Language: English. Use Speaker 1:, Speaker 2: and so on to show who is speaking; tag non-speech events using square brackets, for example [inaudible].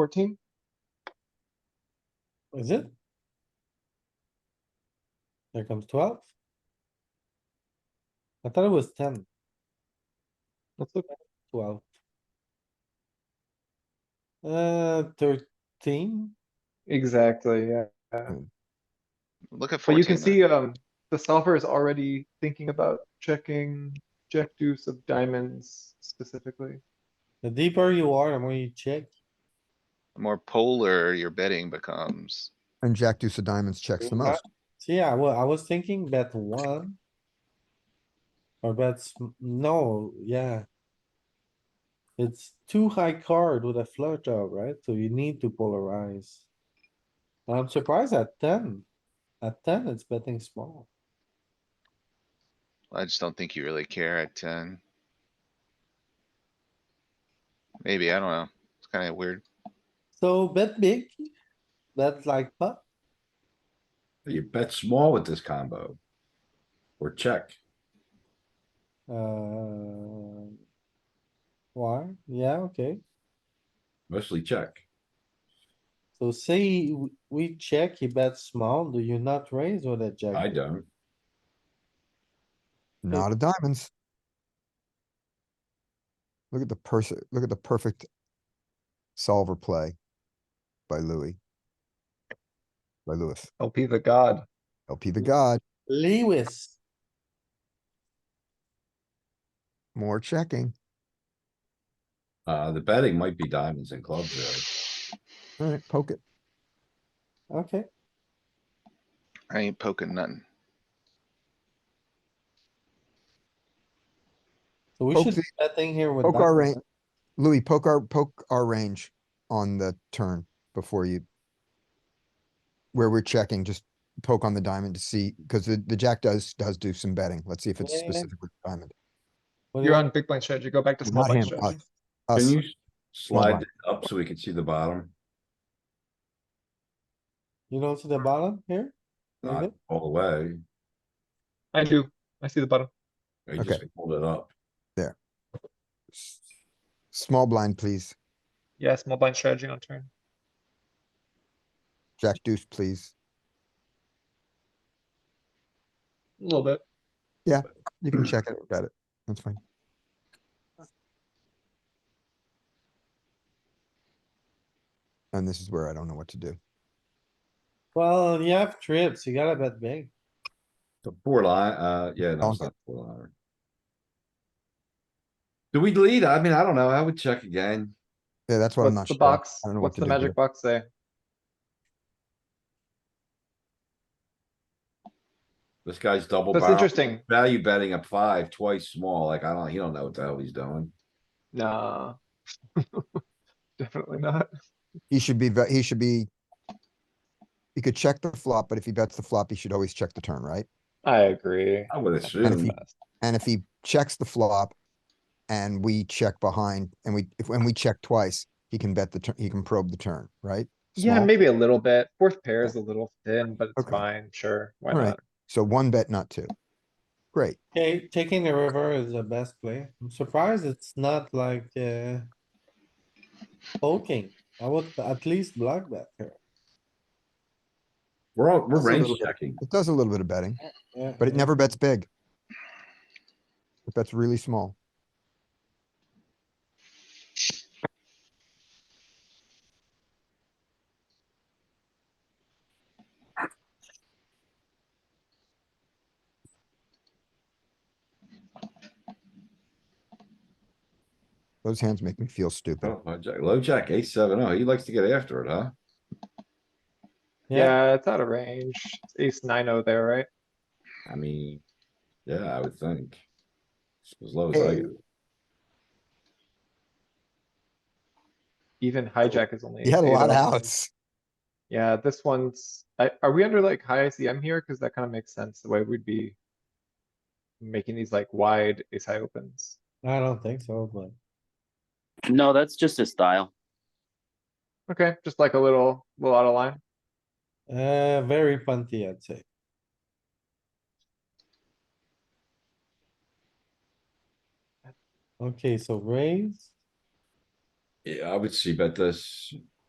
Speaker 1: fourteen?
Speaker 2: Is it? There comes twelve. I thought it was 10, 12.
Speaker 1: Let's look.
Speaker 2: Uh, thirteen,
Speaker 1: Exactly, yeah.
Speaker 3: Hmm.
Speaker 4: Look at
Speaker 1: But
Speaker 4: fourteen.
Speaker 1: you can
Speaker 4: then.
Speaker 1: see, um, the solver is already thinking about checking jack deuce of diamonds specifically.
Speaker 2: the deeper you are, the more you check.
Speaker 4: The More polar your betting becomes.
Speaker 3: And Jack deuce of diamonds checks the
Speaker 2: Yeah.
Speaker 3: most.
Speaker 2: So yeah, well, I was thinking bet one. Or bets, no, yeah. It's too high card with a flush draw, right? So you need to polarize. I'm surprised at ten. At ten, it's betting small.
Speaker 4: I just don't think you really care at ten. Maybe, I don't know. It's kinda weird.
Speaker 2: So bet big. Bet like pot.
Speaker 5: You bet small with this combo. Or check.
Speaker 2: Uh. Why? Yeah, okay.
Speaker 5: Mostly check.
Speaker 2: So say w- we check, he bets small. Do you not raise with a jack?
Speaker 5: I
Speaker 2: deuce?
Speaker 5: don't.
Speaker 3: Not a diamonds. Look at the person, look at the perfect solver play by Louis. By Lewis,
Speaker 1: LP the god.
Speaker 3: LP the god,
Speaker 2: Lewis.
Speaker 3: more checking.
Speaker 5: Uh, the betting might be diamonds and clubs there.
Speaker 3: Alright, poke it.
Speaker 2: Okay,
Speaker 4: I ain't poking nothing.
Speaker 2: so we
Speaker 3: Poke
Speaker 2: should
Speaker 3: the-
Speaker 2: do that thing here with.
Speaker 3: Poke our
Speaker 2: diamonds.
Speaker 3: range. Louis, poke our, poke our range on the turn before you. Where we're checking, just poke on the diamond to see, because the, the jack does, does do some betting. Let's see if it's
Speaker 2: Yeah, yeah, yeah.
Speaker 3: specific with diamond.
Speaker 2: What do you
Speaker 1: You're
Speaker 2: want?
Speaker 1: on big blind strategy, go back to small
Speaker 3: Not
Speaker 1: blind
Speaker 3: him,
Speaker 1: strategy.
Speaker 3: us. us.
Speaker 5: Can you
Speaker 3: Small
Speaker 5: slide
Speaker 3: blind.
Speaker 5: it up so we can see the bottom?
Speaker 2: You don't see the bottom here?
Speaker 5: Not
Speaker 2: David?
Speaker 5: all the way.
Speaker 1: I do, I see the bottom.
Speaker 5: I just pulled it up.
Speaker 3: S- Small blind, please.
Speaker 1: Yeah, small blind strategy on turn.
Speaker 3: Jack deuce, please.
Speaker 1: A little bit.
Speaker 3: You can check it, got it. That's fine. And this is where I don't know what to do.
Speaker 2: Well, you have trips, you gotta bet big.
Speaker 5: The four line, uh, yeah, no, it's
Speaker 3: Donk
Speaker 5: not four line. Do we lead? I mean, I don't know. I would check again.
Speaker 3: Yeah, that's what I'm not
Speaker 1: What's the
Speaker 3: sure.
Speaker 1: box,
Speaker 3: I don't know what
Speaker 1: what's
Speaker 3: to
Speaker 1: the
Speaker 3: do here.
Speaker 1: magic box say?
Speaker 5: This guy's double
Speaker 1: That's
Speaker 5: barrel.
Speaker 1: interesting,
Speaker 5: Value betting up five, twice small. Like, I don't, he don't know what the hell he's doing.
Speaker 1: nah. [laughs] Definitely not.
Speaker 3: He should be, ve- he should be. He could check the flop, but if he bets the flop, he should always check the turn, right?
Speaker 1: I agree.
Speaker 5: I would
Speaker 3: And if
Speaker 5: assume.
Speaker 3: he, and if he checks the flop. And we check behind and we, if, when we check twice, he can bet the turn, he can probe the turn, right?
Speaker 1: Yeah,
Speaker 3: Small.
Speaker 1: maybe a little bit. Fourth pair is a little thin, but it's
Speaker 3: Okay.
Speaker 1: fine, sure, why
Speaker 3: All right.
Speaker 1: not?
Speaker 3: So one bet, not two. Great.
Speaker 2: Okay, taking the river is the best play. I'm surprised it's not like, uh. Poking, I would at least block that here.
Speaker 5: We're all, we're
Speaker 3: That's a
Speaker 5: range
Speaker 3: little bit-
Speaker 5: checking.
Speaker 3: It does a little bit of betting.
Speaker 2: Yeah,
Speaker 3: But it
Speaker 2: yeah.
Speaker 3: never bets big. It bets really small. Those hands make me feel stupid.
Speaker 5: Oh, low jack, low jack, eight, seven, oh, he likes to get after it, huh?
Speaker 2: Yeah,
Speaker 1: Yeah, it's out of range. It's Ace nine oh there, right?
Speaker 5: I mean, yeah, I would think. It's As low as I,
Speaker 3: Hey.
Speaker 5: go.
Speaker 1: Even hijack is only.
Speaker 3: He had a
Speaker 1: 8-8
Speaker 3: lot of
Speaker 1: off.
Speaker 3: outs.
Speaker 1: Yeah, this one's, I, are we under like high ICM here? Cause that kinda makes sense, the way we'd be. Making these like wide ace high opens.
Speaker 2: I don't think so, but
Speaker 6: No, that's just his style.
Speaker 1: Okay, just like a little, little out of line.
Speaker 2: Uh, very punty, I'd say. Okay, so raise,
Speaker 5: yeah, I would see bet this.